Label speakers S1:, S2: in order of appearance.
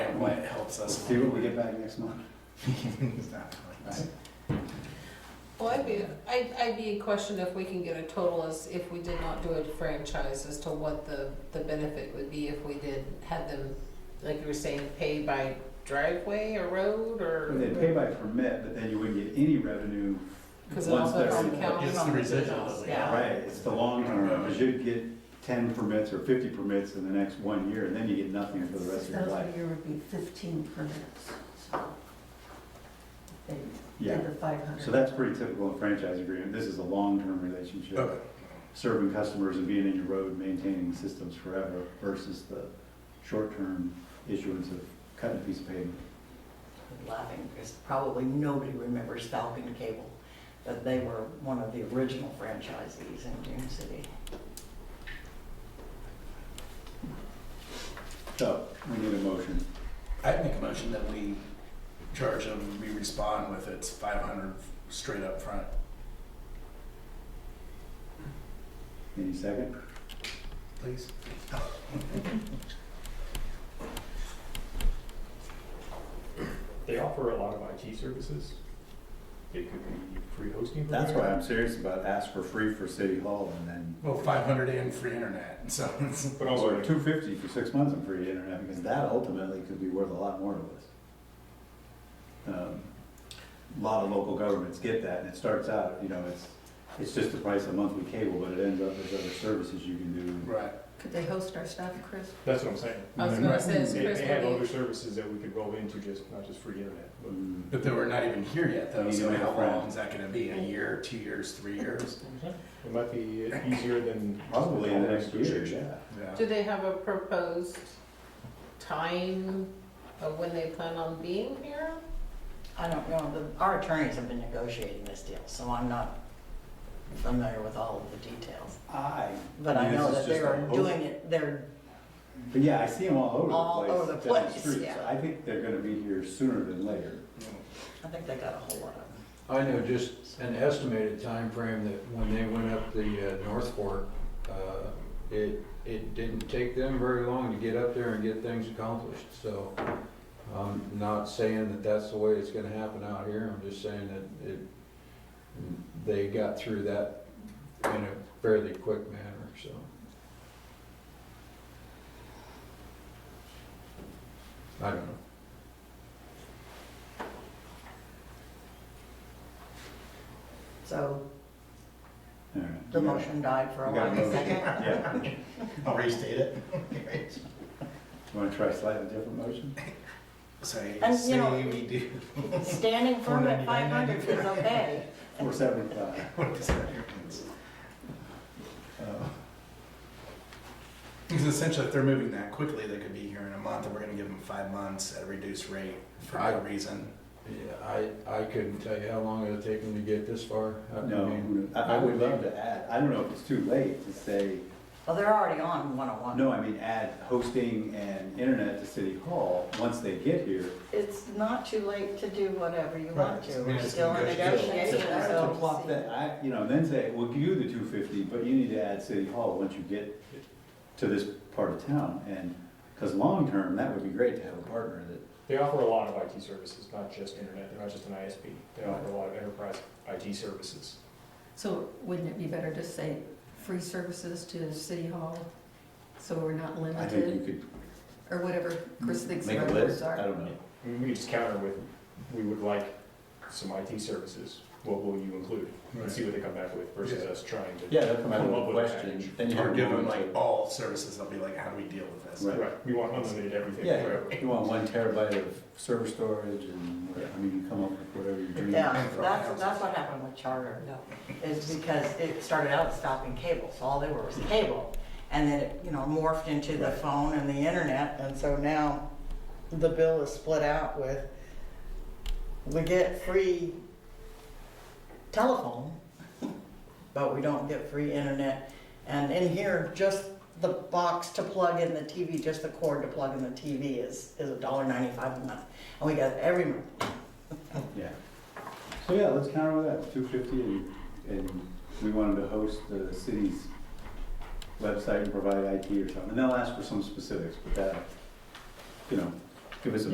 S1: why it helps us.
S2: See what we get back next month.
S1: Right.
S3: Well, I'd be, I'd, I'd be questioned if we can get a total as, if we did not do a franchise, as to what the, the benefit would be if we did have them, like you were saying, pay by driveway or road
S2: Well, They pay
S3: or?
S2: by permit, but then you wouldn't get any revenue.
S3: Cause it
S2: once
S3: all goes
S2: they're-
S3: on county.
S4: It's the residual that we
S3: Yeah.
S2: Right, it's the long term, because you'd get ten permits or fifty permits in the next one year, and then you get nothing for the rest of your life.
S5: Thousand a year would be fifteen permits, so. They
S2: Yeah.
S5: did the five hundred.
S2: So that's pretty typical in franchise agreement, this is a long-term
S4: Okay.
S2: relationship, serving customers and being in your road, maintaining systems forever versus the short-term issuance of cutting a piece of pavement.
S6: laughing because probably nobody remembers Falcon Cable, but they were one of the original franchisees in Dune City.
S2: So, we need a motion.
S1: I'd make a motion that we charge them, we respond with it's five hundred straight up front.
S2: Any second?
S1: Please.
S7: They offer a lot of IT services. It could be free hosting.
S2: That's why
S7: provider.
S2: I'm serious about ask for free for City Hall and then.
S1: Well, five hundred and free internet, so it's.
S7: But also,
S2: Or two fifty for six months on free internet, because that ultimately could be worth a lot more to us. Um, A lot of local governments get that, and it starts out, you know, it's, it's just the price of monthly cable, but it ends up as other services you can do.
S1: Right.
S5: Could they host our stuff, Chris?
S7: that's what I'm saying.
S3: I was gonna say, is
S7: They,
S3: Chris
S7: they have
S3: gonna
S7: other
S3: be,
S7: services that we could roll into just, not just free internet, but
S2: Mm,
S1: But then we're not even here yet, though.
S2: You need to
S1: So
S2: make a
S1: how
S2: friend.
S1: long is that going to be? A year, two years, three years?
S7: it might be easier than.
S2: Probably in the next year, yeah.
S1: Yeah.
S3: do they have a proposed time of when they plan on being here?
S6: I don't know, the, our attorneys have been negotiating this deal, so I'm not familiar with all of the details.
S2: I,
S6: But
S2: I
S6: I
S2: mean,
S6: know
S2: this
S6: that
S2: is just
S6: they're
S2: a hope.
S6: doing it, they're,
S2: but yeah, I see them all
S6: All
S2: over
S6: over
S2: the
S6: the
S2: place, down the
S6: place,
S2: street,
S6: yeah.
S2: so I think they're gonna be here sooner than later.
S6: I think they got a whole lot of them.
S8: I know just an estimated time frame that when they went up the uh, North Fork, uh, it, it didn't take them very long to get up there and get things accomplished. So I'm not saying that that's the way it's gonna happen out here. I'm just saying that it, they got through that in a fairly quick manner, so. I don't know.
S6: So
S2: All right.
S6: the motion died for a
S2: We got a
S6: while.
S2: motion. Yeah,
S1: I'll restate it.
S2: wanna try slightly different motion?
S1: Say,
S6: And, you
S1: say
S6: know-
S1: we do.
S6: Standing firm at
S1: 499.
S6: five hundred is okay.
S2: Four seventy-five.
S1: What does that mean?
S2: Uh,
S1: Because essentially, if they're moving that quickly, they could be here in a month, and we're going to give them five months at a reduced rate for no
S8: Right.
S1: reason.
S8: Yeah, I, I couldn't tell you how long it'll take them to get this far. I
S2: No,
S8: mean,
S2: who knows? I, I would love to add, I don't know if it's too late to say,
S6: Well, they're already on one oh one.
S2: no, I mean, add hosting and internet to City Hall once they get here.
S6: It's not too late to do whatever you want
S1: Right.
S6: to.
S1: I mean,
S6: We're
S1: it's
S6: still in
S1: negotiable.
S6: negotiation,
S2: To
S6: so.
S2: plop that, I, you know, then say, we'll give you the two fifty, but you need to add City Hall once you get to this part of town. And, because long-term, that would be great to have a partner that,
S7: They offer a lot of IT services, not just internet, they're not just an ISP. They offer a lot of enterprise IT services.
S5: So wouldn't it be better to say free services to City Hall? So we're not
S2: I think
S5: limited,
S2: you could
S5: or whatever Chris thinks
S2: make
S5: our
S2: a
S5: words
S2: list,
S5: are.
S2: I don't know.
S7: I mean, We could just counter with, we would like some IT services, what will you include? And see what they come back with versus
S1: Yeah.
S7: us trying to.
S2: Yeah, they'll come out
S7: Come
S2: with
S7: up
S2: a
S7: with a
S2: question,
S7: package.
S2: then you
S1: Or
S2: have
S1: give
S2: to
S1: them like all services. They'll be like, how do we deal with this?
S2: Right.
S7: Right, we want unlimited everything
S2: Yeah,
S7: forever.
S2: you want one terabyte of server storage and, whatever. I mean, you come up with whatever your dream.
S6: Yeah, that's, that's what happened with Charter, is because it started out stopping cable, so all they were was cable. And then it, you know, morphed into the phone and the internet, and so now the bill is split out with, we get free telephone, but we don't get free internet. And in here, just the box to plug in the TV, just the cord to plug in the TV is, is a dollar ninety-five a month. And we got it every month.
S2: Yeah. So yeah, let's counter with that, two fifty, and, and we wanted to host the city's website and provide IT or something, and they'll ask for some specifics, but that, you know, give us a